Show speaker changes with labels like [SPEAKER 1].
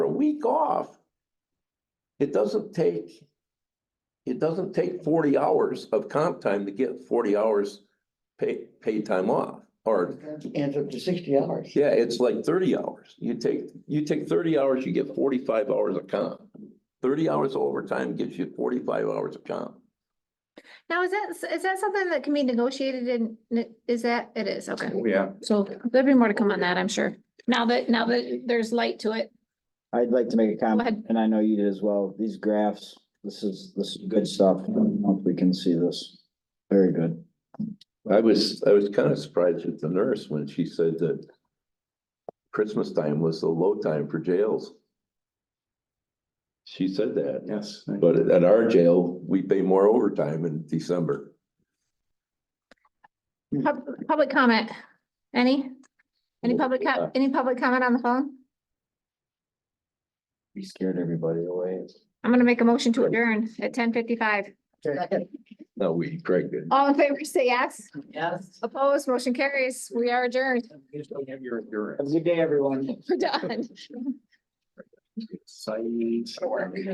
[SPEAKER 1] week off, it doesn't take, it doesn't take forty hours of comp time to get forty hours pay, paid time off. Or,
[SPEAKER 2] Ends up to sixty hours.
[SPEAKER 1] yeah, it's like thirty hours. You take, you take thirty hours, you get forty-five hours of comp. Thirty hours of overtime gives you forty-five hours of comp.
[SPEAKER 3] Now, is that, is that something that can be negotiated in, is that, it is, okay.
[SPEAKER 4] Oh, Yeah,
[SPEAKER 3] So there'll be more to come on that, I'm sure. Now that, now that there's light to it.
[SPEAKER 5] I'd like to make a
[SPEAKER 3] ahead.
[SPEAKER 5] comment, and I know you did as well. These graphs, this is, this is good stuff. Hope we can see this. Very good.
[SPEAKER 1] I was, I was kind of surprised with the nurse when she said that Christmas time was the low time for jails. She said that,
[SPEAKER 4] yes.
[SPEAKER 1] but at our jail, we pay more overtime in December.
[SPEAKER 3] Pub- Public comment, any? Any public, co- any public comment on the phone?
[SPEAKER 5] We scared everybody away.
[SPEAKER 3] I'm gonna make a motion to adjourn at ten fifty-five.
[SPEAKER 1] No, we, Craig did.
[SPEAKER 3] All in favor, say yes.
[SPEAKER 2] Yes.
[SPEAKER 3] Opposed, motion carries. We are adjourned.
[SPEAKER 5] Have a good day, everyone.
[SPEAKER 3] We're done.
[SPEAKER 4] Science.